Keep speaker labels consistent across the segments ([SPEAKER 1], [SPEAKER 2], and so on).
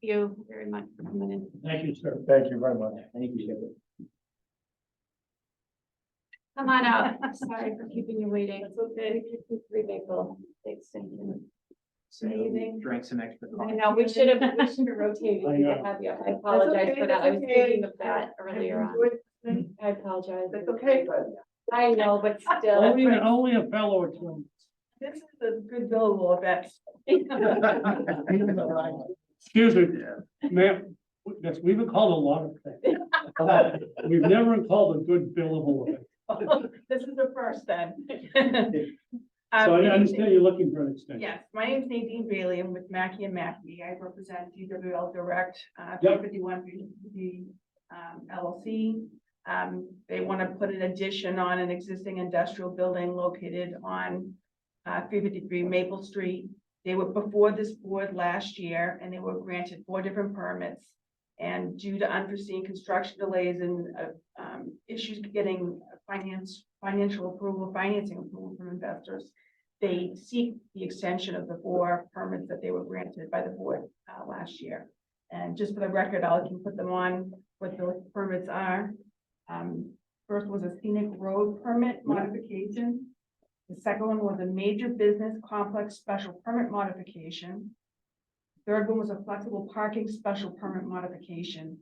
[SPEAKER 1] you very much for coming in.
[SPEAKER 2] Thank you, sir.
[SPEAKER 3] Thank you very much.
[SPEAKER 2] Thank you.
[SPEAKER 1] Come on out. Sorry for keeping you waiting. It's okay. Three people. Thanks. thank you. Amazing.
[SPEAKER 2] Drink some extra
[SPEAKER 1] I
[SPEAKER 2] coffee.
[SPEAKER 1] know, we should have, we should have rotated.
[SPEAKER 2] I
[SPEAKER 1] We
[SPEAKER 2] know.
[SPEAKER 1] didn't have you. I apologize
[SPEAKER 4] okay,
[SPEAKER 1] for that. I was
[SPEAKER 4] that's okay.
[SPEAKER 1] thinking of that earlier on. I apologize.
[SPEAKER 4] That's okay, but
[SPEAKER 1] I know, but still.
[SPEAKER 2] Only, only a fellow or two.
[SPEAKER 4] this is a good billable event.
[SPEAKER 5] Excuse me, ma'am, yes, we've been called a lot of things. We've never been called a good billable event.
[SPEAKER 4] This is the first then. Um,
[SPEAKER 5] So I understand you're looking for an extension.
[SPEAKER 4] Yes, my name is Nadine Bailey. I'm with Mackey and Mackey. I represent DWL Direct, uh,
[SPEAKER 5] Yep.
[SPEAKER 4] fifty-one, the, um, LLC. Um, they want to put an addition on an existing industrial building located on, uh, three fifty-three Maple Street. They were before this board last year and they were granted four different permits. And due to unforeseen construction delays and, uh, um, issues getting finance, financial approval, financing approval from investors, they seek the extension of the four permits that they were granted by the board uh, last year. And just for the record, I can put them on what those permits are. Um, first was a scenic road permit modification. The second one was a major business complex special permit modification. Third one was a flexible parking special permit modification.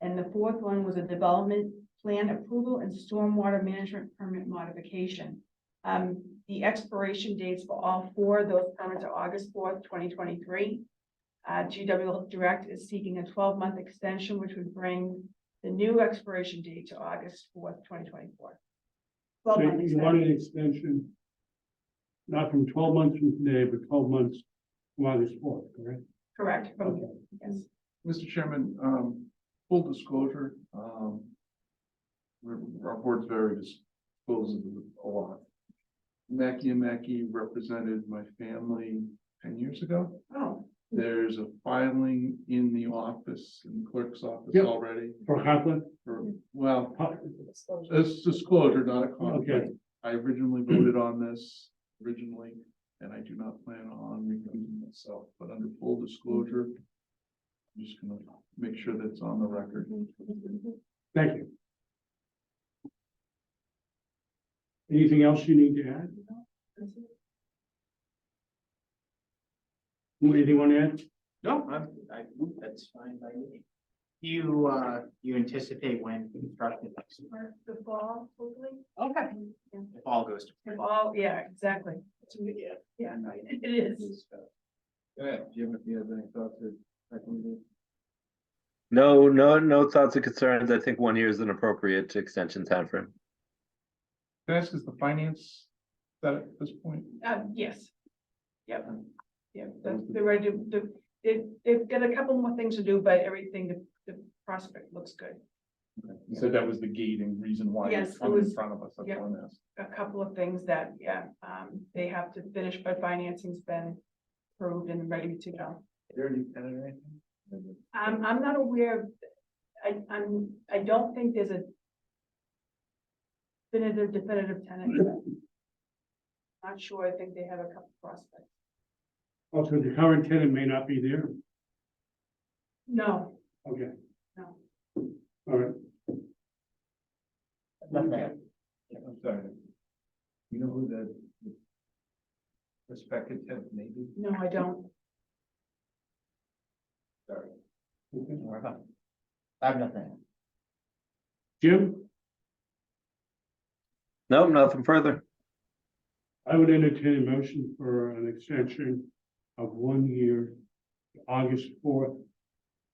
[SPEAKER 4] And the fourth one was a development plan approval and stormwater management permit modification. Um, the expiration dates for all four of those permits are August fourth, twenty twenty-three. Uh, GW Direct is seeking a twelve-month extension, which would bring the new expiration date to August fourth, twenty twenty-four.
[SPEAKER 5] So
[SPEAKER 4] Twelve month
[SPEAKER 5] You
[SPEAKER 4] extension.
[SPEAKER 5] wanted an extension, not from twelve months from today, but twelve months from August fourth, correct?
[SPEAKER 4] correct, from-
[SPEAKER 5] Okay.
[SPEAKER 4] yes.
[SPEAKER 3] Mr. Chairman, um, full disclosure, um, we're, our board's very disposable a lot. Mackey and Mackey represented my family ten years ago.
[SPEAKER 4] Oh,
[SPEAKER 5] Hmm.
[SPEAKER 3] There's a filing in the office, in the clerk's office
[SPEAKER 5] Yep.
[SPEAKER 3] already,
[SPEAKER 5] For conflict,
[SPEAKER 3] for, well,
[SPEAKER 5] co-
[SPEAKER 1] Mm-hmm.
[SPEAKER 3] It's disclosure, not a conflict.
[SPEAKER 5] Okay.
[SPEAKER 3] I originally voted on this originally, and I do not plan on recusing myself, but under full disclosure. I'm just gonna make sure that's on the record.
[SPEAKER 1] Mm-hmm.
[SPEAKER 5] thank you. Anything else you need to add? Anything you want to add?
[SPEAKER 2] No, I'm, I, that's fine by me. Do you, uh, you anticipate when construction,
[SPEAKER 4] for the fall, hopefully.
[SPEAKER 2] okay, if all goes to.
[SPEAKER 4] The fall, yeah, exactly.
[SPEAKER 2] Yeah.
[SPEAKER 4] Yeah,
[SPEAKER 2] I-
[SPEAKER 4] it is.
[SPEAKER 3] Yeah, do you have, do you have any thoughts or? I can
[SPEAKER 6] No, no, no thoughts or concerns. I think one year is an appropriate extension timeframe.
[SPEAKER 3] ask, is the finance that at this point?
[SPEAKER 4] Uh, yes. Yep. Yep, that's- they're ready to, the, they, they've got a couple more things to do, but everything, the, the prospect looks good.
[SPEAKER 3] You said that was the gating reason why
[SPEAKER 4] Yes,
[SPEAKER 3] it's
[SPEAKER 4] it
[SPEAKER 3] come in
[SPEAKER 4] was-
[SPEAKER 3] front of us, that's
[SPEAKER 4] yeah.
[SPEAKER 3] on this.
[SPEAKER 4] A couple of things that, yeah, um, they have to finish, but financing's been approved and ready to go.
[SPEAKER 3] There any tenant or anything?
[SPEAKER 4] Um, I'm not aware, of- I, I'm, I don't think there's a definitive, definitive tenant. Not sure, I think they have a couple prospects.
[SPEAKER 5] Also, the current tenant may not be there.
[SPEAKER 4] No,
[SPEAKER 5] Okay,
[SPEAKER 4] no.
[SPEAKER 5] all right.
[SPEAKER 2] Nothing.
[SPEAKER 3] I'm sorry. You know who the the prospective tenant may be?
[SPEAKER 4] No, I don't.
[SPEAKER 3] Sorry.
[SPEAKER 5] Okay.
[SPEAKER 2] Don't worry about it. I have nothing.
[SPEAKER 5] Jim?
[SPEAKER 6] No, nothing further.
[SPEAKER 5] I would entertain a motion for an extension of one year, August fourth,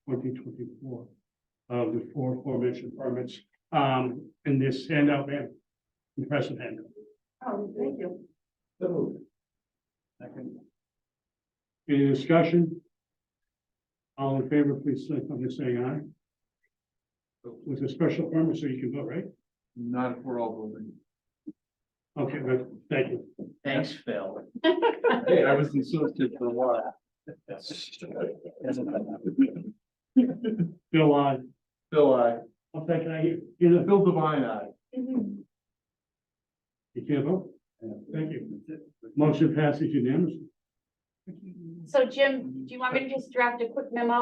[SPEAKER 5] twenty twenty-four. Of the four aforementioned permits, um, in this handout, man, impressive handout.
[SPEAKER 4] Oh, thank you.
[SPEAKER 3] So moved. Second.
[SPEAKER 5] Any discussion? All in favor, please signify by saying aye. With a special permit, so you can vote, right?
[SPEAKER 3] Not if we're all voting.
[SPEAKER 5] Okay, good, thank you.
[SPEAKER 2] Thanks, Phil.
[SPEAKER 3] Hey, I was insulted for a while.
[SPEAKER 5] Bill, I,
[SPEAKER 3] Bill, I,
[SPEAKER 5] I'll take it, I, you know,
[SPEAKER 3] Bill Devine, I.
[SPEAKER 1] Mm-hmm.
[SPEAKER 5] you can't vote, thank you. Motion passes unanimously.
[SPEAKER 1] So Jim, do you want me to just draft a quick memo